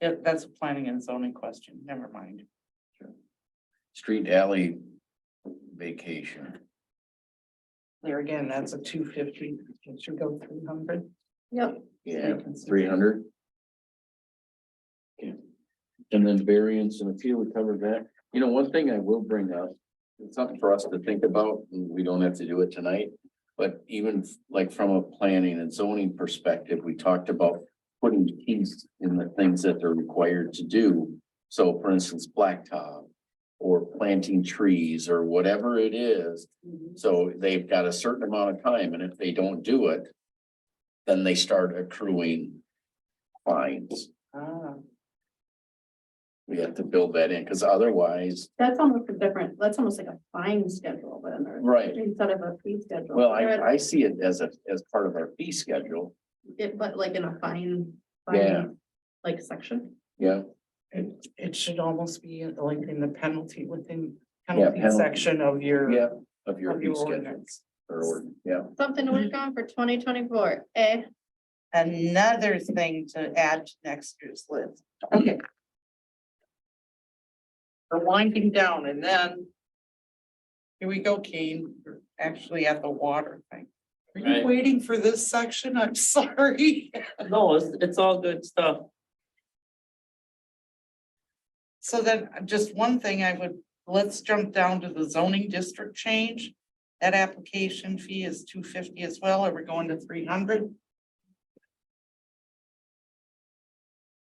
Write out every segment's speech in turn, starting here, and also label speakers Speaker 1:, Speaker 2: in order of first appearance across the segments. Speaker 1: Yeah, that's a planning and zoning question, never mind.
Speaker 2: Street alley vacation.
Speaker 1: There again, that's a two fifty, it should go three hundred. Yep.
Speaker 2: Yeah, three hundred. And then variance and appeal, we covered that. You know, one thing I will bring up, it's something for us to think about, and we don't have to do it tonight. But even like from a planning and zoning perspective, we talked about putting keys in the things that they're required to do. So for instance, blacktop or planting trees or whatever it is. So they've got a certain amount of time, and if they don't do it, then they start accruing fines.
Speaker 1: Ah,
Speaker 2: We have to build that in, because otherwise,
Speaker 3: That's almost a different, that's almost like a fine schedule then, or
Speaker 2: right,
Speaker 3: instead of a fee schedule.
Speaker 2: well, I,
Speaker 3: Or
Speaker 2: I see it as a, as part of our fee schedule,
Speaker 3: it- But like in a fine. fine,
Speaker 2: Yeah.
Speaker 3: Like section.
Speaker 2: yeah.
Speaker 1: It, it should almost be like in the penalty within
Speaker 2: Yeah,
Speaker 1: penalty
Speaker 2: penalty.
Speaker 1: section of your.
Speaker 2: Yeah, of your
Speaker 1: Of
Speaker 2: fee
Speaker 1: your
Speaker 2: schedule,
Speaker 1: ordinance.
Speaker 2: or, ordinance, yeah,
Speaker 3: Something to work on for twenty twenty-four, eh?
Speaker 1: Another thing to add to next year's list.
Speaker 3: Okay.
Speaker 1: We're winding down and then. Here we go, Kane, We're actually at the water thing. Are
Speaker 4: Right.
Speaker 1: you waiting for this section? I'm sorry.
Speaker 4: No, it's, it's all good stuff.
Speaker 1: So then, uh, just one thing I would, let's jump down to the zoning district change. That application fee is two fifty as well, are we going to three hundred?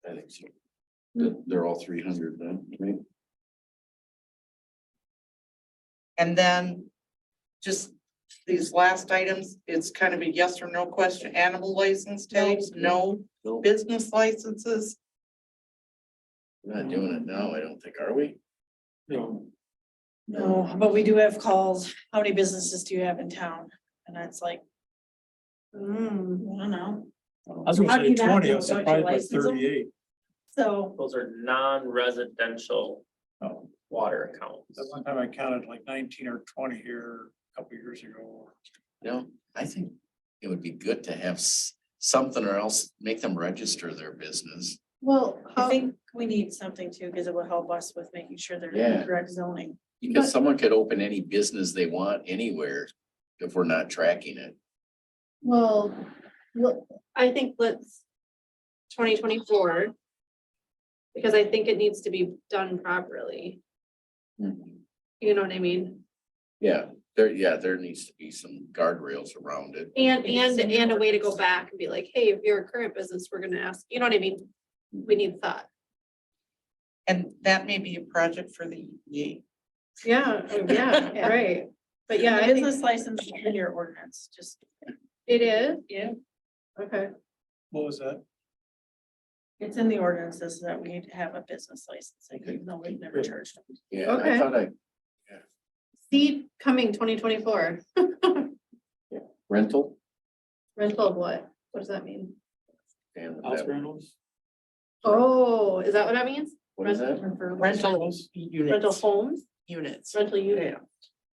Speaker 2: I think so. They're, they're all three hundred then, right?
Speaker 1: And then just these last items, it's kind of a yes or no question, animal license tags, no,
Speaker 2: No,
Speaker 1: business licenses.
Speaker 2: we're not doing it now, I don't think, are we?
Speaker 4: No.
Speaker 5: No, but we do have calls. How many businesses do you have in town? And that's like,
Speaker 3: Mm,
Speaker 5: I don't know.
Speaker 6: I was gonna
Speaker 5: How'd you
Speaker 6: say
Speaker 5: not
Speaker 6: twenty,
Speaker 5: know?
Speaker 6: I was
Speaker 5: Don't you
Speaker 6: surprised by
Speaker 5: license 'em?
Speaker 6: thirty-eight.
Speaker 5: So
Speaker 4: Those are non-residential
Speaker 6: Oh,
Speaker 4: water accounts.
Speaker 6: That one time I counted like nineteen or twenty here a couple years ago.
Speaker 2: No, I think it would be good to have s- something or else make them register their business.
Speaker 3: well,
Speaker 5: I
Speaker 3: how,
Speaker 5: think we need something too, because it will help us with making sure they're in
Speaker 2: Yeah.
Speaker 5: the correct zoning.
Speaker 2: Because someone could open any business they want anywhere if we're not tracking it.
Speaker 3: well, look, I think let's twenty twenty-four. Because I think it needs to be done properly,
Speaker 2: Mm-hmm.
Speaker 3: you know what I mean?
Speaker 2: Yeah, there, yeah, there needs to be some guardrails around it.
Speaker 3: And, and, and a way to go back and be like, hey, if you're a current business, we're gonna ask, you know what I mean? We need thought.
Speaker 1: And that may be a project for the E EPA.
Speaker 3: Yeah, oh, yeah, right. But yeah,
Speaker 5: The
Speaker 3: I
Speaker 5: Business
Speaker 3: think
Speaker 5: license is in your ordinance, just.
Speaker 3: it is,
Speaker 5: Yeah.
Speaker 3: okay.
Speaker 6: What was that?
Speaker 5: It's in the ordinances that we need to have a business license, like, even though we've never charged them.
Speaker 2: Yeah, I
Speaker 3: Okay.
Speaker 2: thought I,
Speaker 3: See coming twenty twenty-four,
Speaker 2: rental.
Speaker 3: rental of what? What does that mean?
Speaker 2: and
Speaker 6: House
Speaker 2: that-
Speaker 6: rentals?
Speaker 3: Oh, is that what that means?
Speaker 2: What is that?
Speaker 1: Rental
Speaker 3: Rental
Speaker 1: units,
Speaker 3: homes,
Speaker 1: units,
Speaker 3: rental unit,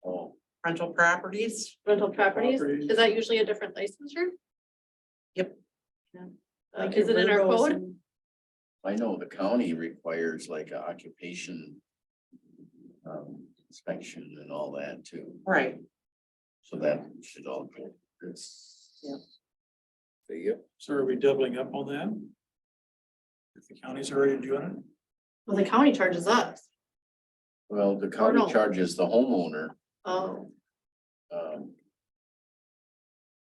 Speaker 2: Oh,
Speaker 1: rental properties.
Speaker 3: rental properties,
Speaker 6: Properties.
Speaker 3: is that usually a different licensure?
Speaker 1: Yep.
Speaker 3: Yeah. Uh,
Speaker 5: Like
Speaker 3: is it in our
Speaker 5: your Virgos
Speaker 3: code?
Speaker 5: and-
Speaker 2: I know the county requires like a occupation. Um, inspection and all that too,
Speaker 1: Right.
Speaker 2: so that should all. be
Speaker 1: Yeah.
Speaker 2: Yep.
Speaker 6: So are we doubling up on that? If the county's already doing it?
Speaker 3: Well, the county charges us,
Speaker 2: Well, the
Speaker 3: no.
Speaker 2: county charges the homeowner,
Speaker 3: oh,
Speaker 2: um.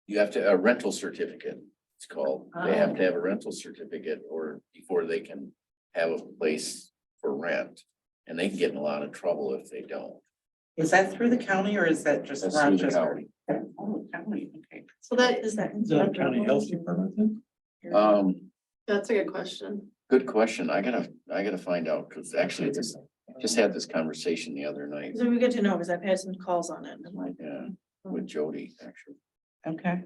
Speaker 2: You have to, a rental certificate, it's called, they have to have a rental certificate or before they can have a place for rent. And they can get in a lot of trouble if they don't.
Speaker 1: Is that through the county or is that just
Speaker 2: That's through the
Speaker 1: Rochester? Oh, county, okay.
Speaker 3: so that,
Speaker 5: Is that?
Speaker 6: Is that a county health department then?
Speaker 2: Um,
Speaker 3: that's a good question.
Speaker 2: good question, I gotta, I gotta find out, cause actually I just, just had this conversation the other night,
Speaker 5: So we get to know, because I've had some calls on it, and I'm like,
Speaker 2: yeah, with Jody, actually.
Speaker 1: Okay.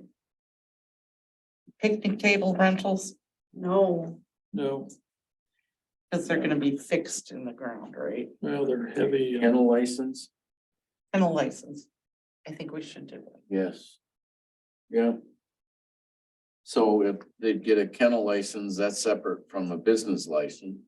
Speaker 1: Picnic table rentals,
Speaker 5: no,
Speaker 6: No,
Speaker 1: because they're gonna be fixed in the ground, right?
Speaker 6: well, they're heavy. uh,
Speaker 2: Kennel license?
Speaker 1: And a license. I think we should do it.
Speaker 2: Yes. Yeah. So if they get a kennel license, that's separate from a business license.